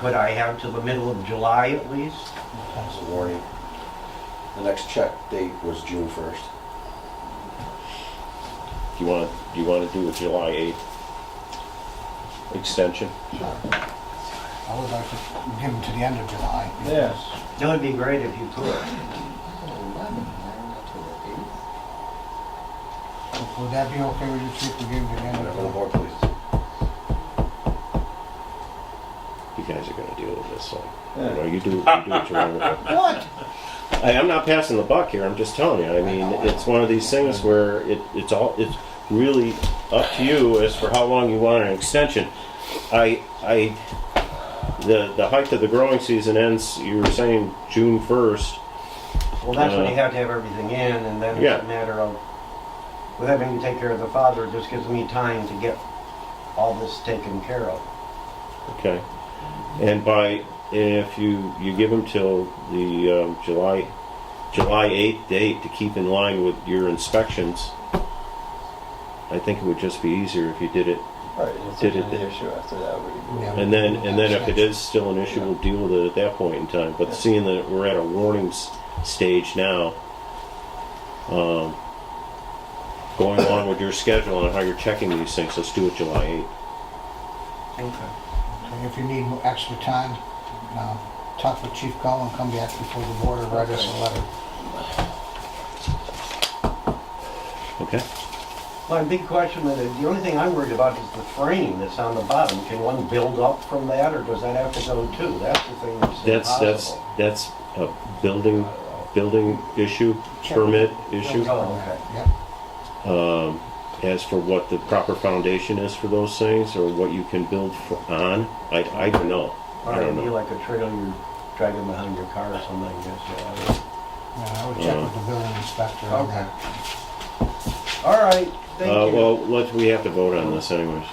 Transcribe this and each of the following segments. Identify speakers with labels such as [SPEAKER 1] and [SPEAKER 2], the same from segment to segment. [SPEAKER 1] Could I have till the middle of July at least?
[SPEAKER 2] That's a warning. The next check date was June first.
[SPEAKER 3] Do you want, do you want to do a July 8th extension?
[SPEAKER 4] I would like to give them to the end of July.
[SPEAKER 3] Yes.
[SPEAKER 1] That would be great if you could.
[SPEAKER 4] Would that be okay with you, Chief, to give them to the end
[SPEAKER 2] Whatever the
[SPEAKER 4] of July?
[SPEAKER 2] board pleases.
[SPEAKER 3] You guys are gonna deal with this, so, you know, you do, you do what you want.
[SPEAKER 4] What?
[SPEAKER 3] I, I'm not passing the buck here, I'm just telling you, I mean, it's one of these things where it, it's all, it's really up to you as for how long you want an extension. I, I, the, the height of the growing season ends, you were saying June first,
[SPEAKER 1] Well, that's when
[SPEAKER 3] Uh,
[SPEAKER 1] you have to have everything in, and then
[SPEAKER 3] Yeah.
[SPEAKER 1] it's a matter of, with having to take care of the father, it just gives me time to get all this taken care of.
[SPEAKER 3] okay? And by, if you, you give them till the, um, July, July eighth date to keep in line with your inspections, I think it would just be easier if you did it
[SPEAKER 5] Right, and if
[SPEAKER 3] Did
[SPEAKER 5] there's
[SPEAKER 3] it-
[SPEAKER 5] any issue after that, we,
[SPEAKER 4] Yeah.
[SPEAKER 3] And then, and then if it is still an issue, we'll deal with it at that point in time. But seeing that we're at a warning s- stage now, um, going along with your schedule and how you're checking these things, let's do it July eighth.
[SPEAKER 1] Okay.
[SPEAKER 4] Okay, If you need more extra time, uh, talk with Chief Cullen, come back before the board and write us a letter.
[SPEAKER 3] Okay?
[SPEAKER 1] My big question, that the only thing I'm worried about is the frame that's on the bottom. Can one build up from that, or does that have to go too? That's the thing that's
[SPEAKER 3] That's, that's,
[SPEAKER 1] impossible.
[SPEAKER 3] that's a building, building issue, permit issue,
[SPEAKER 1] Oh, okay.
[SPEAKER 4] Yep.
[SPEAKER 3] um, as for what the proper foundation is for those things or what you can build for, on. I, I don't know.
[SPEAKER 1] Or
[SPEAKER 3] I don't
[SPEAKER 1] it'd be
[SPEAKER 3] know.
[SPEAKER 1] like a trailer you're dragging behind your car or something, I guess. yeah.
[SPEAKER 4] Yeah, I would check with the building inspector on
[SPEAKER 1] Okay.
[SPEAKER 4] that.
[SPEAKER 1] All right,
[SPEAKER 3] Uh,
[SPEAKER 1] thank you.
[SPEAKER 3] well, let's, we have to vote on this anyways.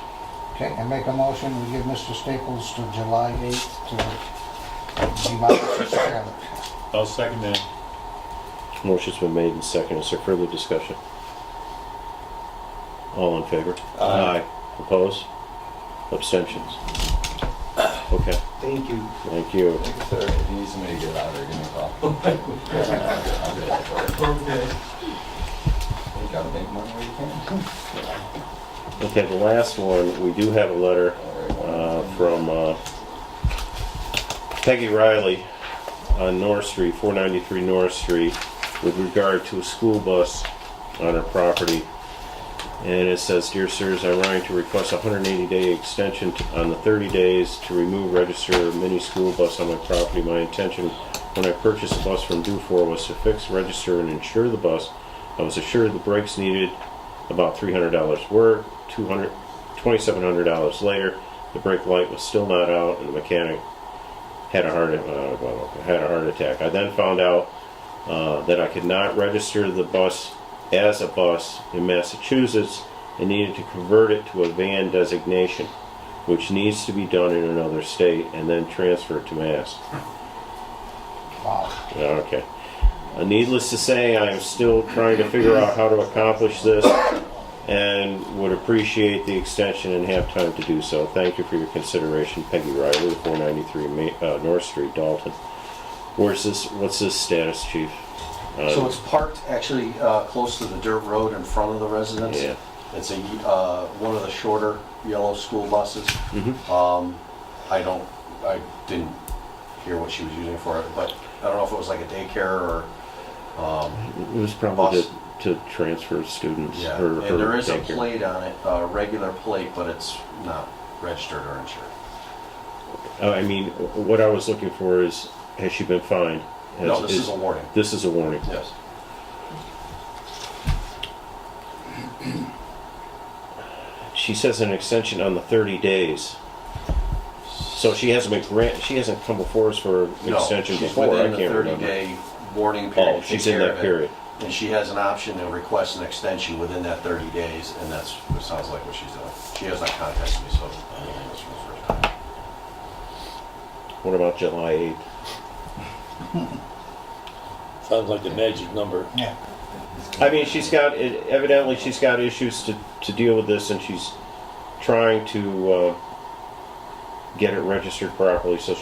[SPEAKER 4] Okay, and make a motion, we give Mr. Staples to July 8th to demolish his trailer.
[SPEAKER 6] I'll second that.
[SPEAKER 3] Motion's been made and seconded. Is there further discussion? All in favor?
[SPEAKER 5] Aye.
[SPEAKER 3] Opposed? Abstentions? Okay,
[SPEAKER 1] Thank you.
[SPEAKER 3] thank you.
[SPEAKER 5] like, if there, if you need somebody to get out, or give me a call. I'll get out for it. You gotta make money where you can.
[SPEAKER 3] Okay, the last one, we do have a letter uh, from uh, Peggy Riley on North Street, 493 North Street, with regard to a school bus on her property. And it says, "Dear sirs, I'm writing to request a 180-day extension to- on the 30 days to remove register mini school bus on my property. My intention when I purchased the bus from Dufour was to fix, register, and insure the bus. I was assured the brakes needed about $300 were, 200 $2,700 later. The brake light was still not out, and the mechanic had a heart uh, well, had a heart attack. I then found out uh, that I could not register the bus as a bus in Massachusetts and needed to convert it to a van designation, which needs to be done in another state and then transferred to Mass.
[SPEAKER 4] Wow.
[SPEAKER 3] Yeah, Okay. Uh, needless to say, I am still trying to figure out how to accomplish this and would appreciate the extension and have time to do so. Thank you for your consideration, Peggy Riley, 493 Ma- uh, North Street, Dalton. Where's this? What's this status, Chief? Uh,
[SPEAKER 2] So it's parked actually uh, close to the dirt road in front of the residence.
[SPEAKER 3] Yeah.
[SPEAKER 2] It's a, uh, one of the shorter yellow school buses.
[SPEAKER 3] Mhm.
[SPEAKER 2] Um, I don't, I didn't hear what she was using it for, but I don't know if it was like a daycare or, um,
[SPEAKER 3] it was probably
[SPEAKER 2] bus.
[SPEAKER 3] to, to transfer students.
[SPEAKER 2] yeah.
[SPEAKER 3] Her, her
[SPEAKER 2] And there is a
[SPEAKER 3] daycare.
[SPEAKER 2] plate on it, a regular plate, but it's not registered or insured.
[SPEAKER 3] Uh, I mean, what I was looking for is, has she been fined? Has,
[SPEAKER 2] No, this is a warning.
[SPEAKER 3] this is a warning.
[SPEAKER 2] Yes.
[SPEAKER 3] She says an extension on the 30 days. So she hasn't been grant. She hasn't come before us for an
[SPEAKER 2] No,
[SPEAKER 3] extension
[SPEAKER 2] she's
[SPEAKER 3] before. I
[SPEAKER 2] within the
[SPEAKER 3] can't remember.
[SPEAKER 2] 30-day warning period.
[SPEAKER 3] oh,
[SPEAKER 2] to
[SPEAKER 3] she's
[SPEAKER 2] take
[SPEAKER 3] in
[SPEAKER 2] care
[SPEAKER 3] that
[SPEAKER 2] of it.
[SPEAKER 3] period.
[SPEAKER 2] And she has an option to request an extension within that 30 days, and that's, it sounds like what she's doing. She has not contacted me, so I'm hearing this for the first time.
[SPEAKER 3] What about July 8th?
[SPEAKER 6] Sounds like the magic number.
[SPEAKER 4] Yeah.
[SPEAKER 3] I mean, she's got it, evidently she's got issues to, to deal with this, and she's trying to uh, get it registered properly so